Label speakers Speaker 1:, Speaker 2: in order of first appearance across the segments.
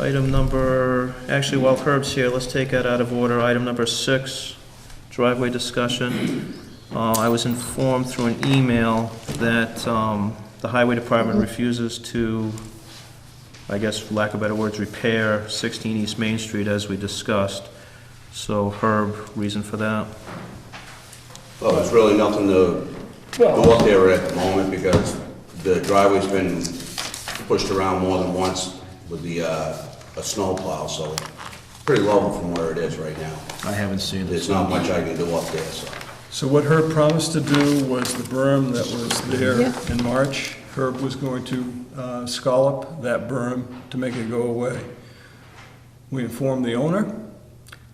Speaker 1: Item number, actually, while Herb's here, let's take that out of order. Item number six, driveway discussion. Uh, I was informed through an email that um, the highway department refuses to, I guess, for lack of better words, repair 16 East Main Street as we discussed. So Herb, reason for that?
Speaker 2: Well, there's really nothing to go up there at the moment because the driveway's been pushed around more than once with the, uh, a snowplow, so pretty level from where it is right now.
Speaker 1: I haven't seen
Speaker 2: There's not much I can do up there, so.
Speaker 3: So what Herb promised to do was the berm that was there in March, Herb was going to uh, scallop that berm to make it go away. We informed the owner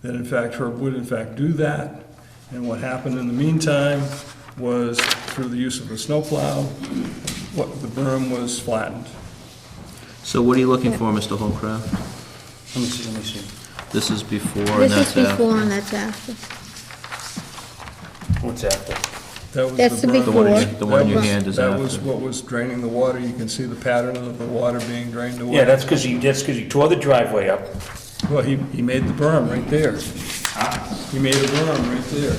Speaker 3: that in fact Herb would in fact do that, and what happened in the meantime was through the use of a snowplow, what, the berm was flattened.
Speaker 1: So what are you looking for, Mr. Holcraft?
Speaker 4: Let me see, let me see.
Speaker 1: This is before and
Speaker 5: This
Speaker 1: that's
Speaker 5: is
Speaker 1: after.
Speaker 5: before and that's after.
Speaker 4: What's after?
Speaker 3: That was
Speaker 5: That's the
Speaker 3: berm.
Speaker 1: The one in your-
Speaker 5: before.
Speaker 1: the one in your
Speaker 3: That was-
Speaker 1: hand is
Speaker 3: That was
Speaker 1: after.
Speaker 3: what was draining the water, you can see the pattern of the water being drained away.
Speaker 4: Yeah, that's because he, that's because he tore the driveway up.
Speaker 3: Well, he, he made the berm right there. He made a berm right there.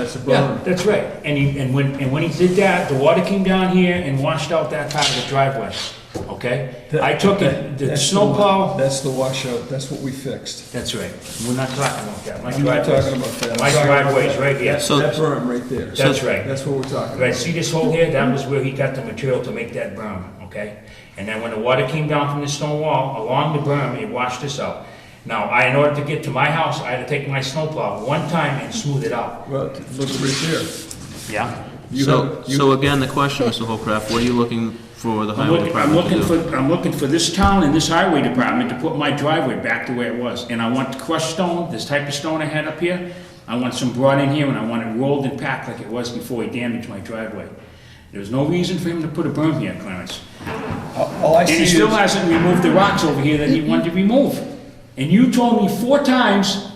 Speaker 3: That's a berm.
Speaker 4: That's right. And he, and when, and when he did that, the water came down here and washed out that part of the driveway, okay? I took it, the
Speaker 3: That's
Speaker 4: snowplow,
Speaker 3: That's the washout, that's what we fixed.
Speaker 4: that's right. We're not talking about that. My
Speaker 3: I'm not
Speaker 4: driveway-
Speaker 3: talking about that. I'm
Speaker 4: My
Speaker 3: talking about
Speaker 4: driveway's
Speaker 3: that-
Speaker 4: right here.
Speaker 3: That
Speaker 1: So-
Speaker 3: that berm right there.
Speaker 4: That's right.
Speaker 3: That's what we're talking
Speaker 4: Right,
Speaker 3: about.
Speaker 4: see this hole here? That was where he got the material to make that berm, okay? And then when the water came down from the stone wall along the berm, it washed this out. Now, I, in order to get to my house, I had to take my snowplow one time and smooth it out.
Speaker 3: Well, t- look right there.
Speaker 4: Yeah?
Speaker 3: You
Speaker 1: So,
Speaker 3: have- you-
Speaker 1: so again, the question, Mr. Holcraft, what are you looking for the
Speaker 4: I'm
Speaker 1: highway
Speaker 4: looking, I'm
Speaker 1: department to
Speaker 4: looking
Speaker 1: do?
Speaker 4: for, I'm looking for this town and this highway department to put my driveway back the way it was. And I want crushed stone, this type of stone I had up here. I want some brought in here and I want it rolled and packed like it was before he damaged my driveway. There's no reason for him to put a berm here, Clarence.
Speaker 3: All I
Speaker 4: And
Speaker 3: see
Speaker 4: he
Speaker 3: is,
Speaker 4: still hasn't removed the rocks over here that he wanted to remove. And you told me four times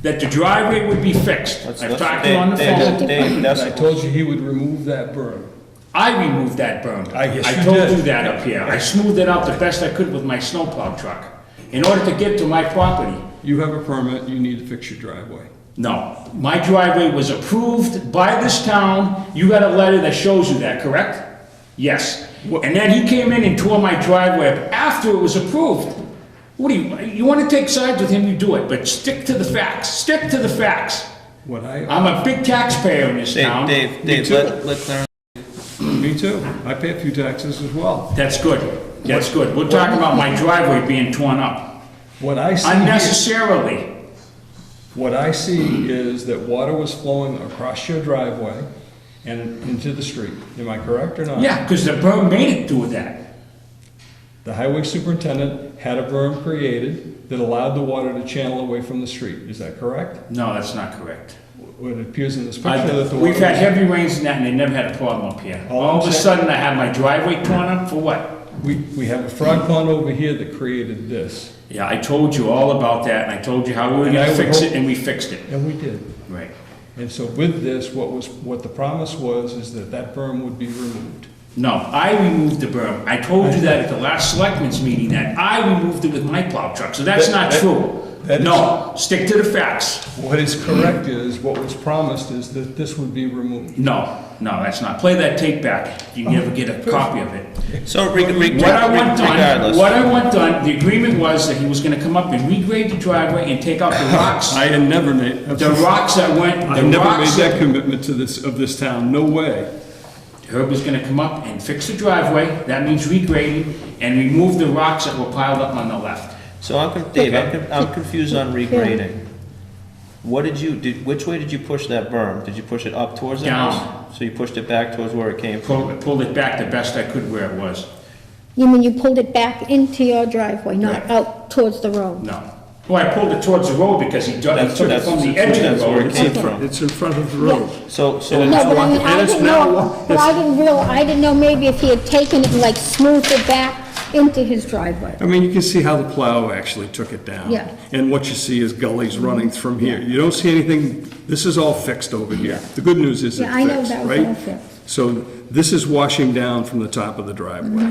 Speaker 4: that the driveway would be fixed. I've talked to him on the phone.
Speaker 3: I told you he would remove that berm.
Speaker 4: I removed that berm.
Speaker 3: I guess you
Speaker 4: told
Speaker 3: did.
Speaker 4: you that up here. I smoothed it out the best I could with my snowplow truck in order to get to my property.
Speaker 3: You have a permit, you need to fix your driveway.
Speaker 4: No, my driveway was approved by this town. You got a letter that shows you that, correct? Yes. And then he came in and tore my driveway up after it was approved. What do you, you want to take sides with him, you do it, but stick to the facts. Stick to the facts.
Speaker 3: What I,
Speaker 4: I'm a big taxpayer in this town.
Speaker 1: Dave, Dave,
Speaker 3: too.
Speaker 1: let, let Clarence.
Speaker 3: me too. I pay a few taxes as well.
Speaker 4: That's good. That's good. We're talking about my driveway being torn up
Speaker 3: What I see here.
Speaker 4: unnecessarily.
Speaker 3: What I see is that water was flowing across your driveway and into the street. Am I correct or not?
Speaker 4: Yeah, because the berm made it do that.
Speaker 3: The highway superintendent had a berm created that allowed the water to channel away from the street. Is that correct?
Speaker 4: No, that's not correct.
Speaker 3: What it appears in this picture that
Speaker 4: I've-
Speaker 3: the
Speaker 4: We've had
Speaker 3: water.
Speaker 4: heavy rains and that, and they never had a problem up here.
Speaker 3: All
Speaker 4: All of
Speaker 3: I'm
Speaker 4: a
Speaker 3: saying-
Speaker 4: sudden, I had my driveway torn up for what?
Speaker 3: We, we have a frog pond over here that created this,
Speaker 4: Yeah, I told you all about that, and I told you how we were
Speaker 3: And I
Speaker 4: gonna
Speaker 3: would
Speaker 4: fix it,
Speaker 3: hope-
Speaker 4: and we fixed it.
Speaker 3: and we did.
Speaker 4: Right.
Speaker 3: And so with this, what was, what the promise was is that that berm would be removed.
Speaker 4: No, I removed the berm. I told you that at the last selectmen's meeting, that I removed it with my plow truck, so that's
Speaker 3: That-
Speaker 4: not
Speaker 3: that-
Speaker 4: true.
Speaker 3: that is-
Speaker 4: No, stick to the facts.
Speaker 3: What is correct is, what was promised is that this would be removed.
Speaker 4: No, no, that's not. Play that tape back.
Speaker 3: Oh.
Speaker 4: You never get a copy of it.
Speaker 1: So reg- reg-
Speaker 4: What I want done,
Speaker 1: regardless.
Speaker 4: what I want done, the agreement was that he was gonna come up and regrade the driveway and take out the rocks.
Speaker 3: I have never made.
Speaker 4: The rocks that went,
Speaker 3: I've
Speaker 4: the
Speaker 3: never made
Speaker 4: rocks
Speaker 3: that
Speaker 4: that,
Speaker 3: commitment to this, of this town, no way.
Speaker 4: Herb was gonna come up and fix the driveway, that means regrading, and remove the rocks that were piled up on the left.
Speaker 1: So I'm, con- Dave, I'm, con- I'm confused on regrading.
Speaker 5: Yeah.
Speaker 1: What did you, did, which way did you push that berm? Did you push it up towards the
Speaker 4: Down.
Speaker 1: house? So you pushed it back towards where it came from?
Speaker 4: Pulled, pulled it back the best I could where it was,
Speaker 5: You mean you pulled it back into your driveway, not out towards the road?
Speaker 4: no. Well, I pulled it towards the road because he dug, he
Speaker 1: That's,
Speaker 4: took
Speaker 1: that's,
Speaker 4: it from the edge of
Speaker 1: that's
Speaker 4: the
Speaker 1: where it
Speaker 4: road.
Speaker 1: came from.
Speaker 6: It's in front of the road.
Speaker 1: So, so,
Speaker 5: No, but I mean,
Speaker 6: And
Speaker 5: I
Speaker 6: it's
Speaker 5: didn't
Speaker 6: now
Speaker 5: know,
Speaker 6: walk-
Speaker 5: but I didn't real, I didn't know maybe if he had taken it and like smoothed it back into his driveway.
Speaker 6: I mean, you can see how the plow actually took it down.
Speaker 5: Yeah.
Speaker 6: And what you see is gullies running from here. You don't see anything, this is all fixed over here. The good news is it's
Speaker 5: Yeah, I know
Speaker 6: fixed,
Speaker 5: that was all
Speaker 6: right?
Speaker 5: fixed.
Speaker 6: So this is washing down from the top of the driveway.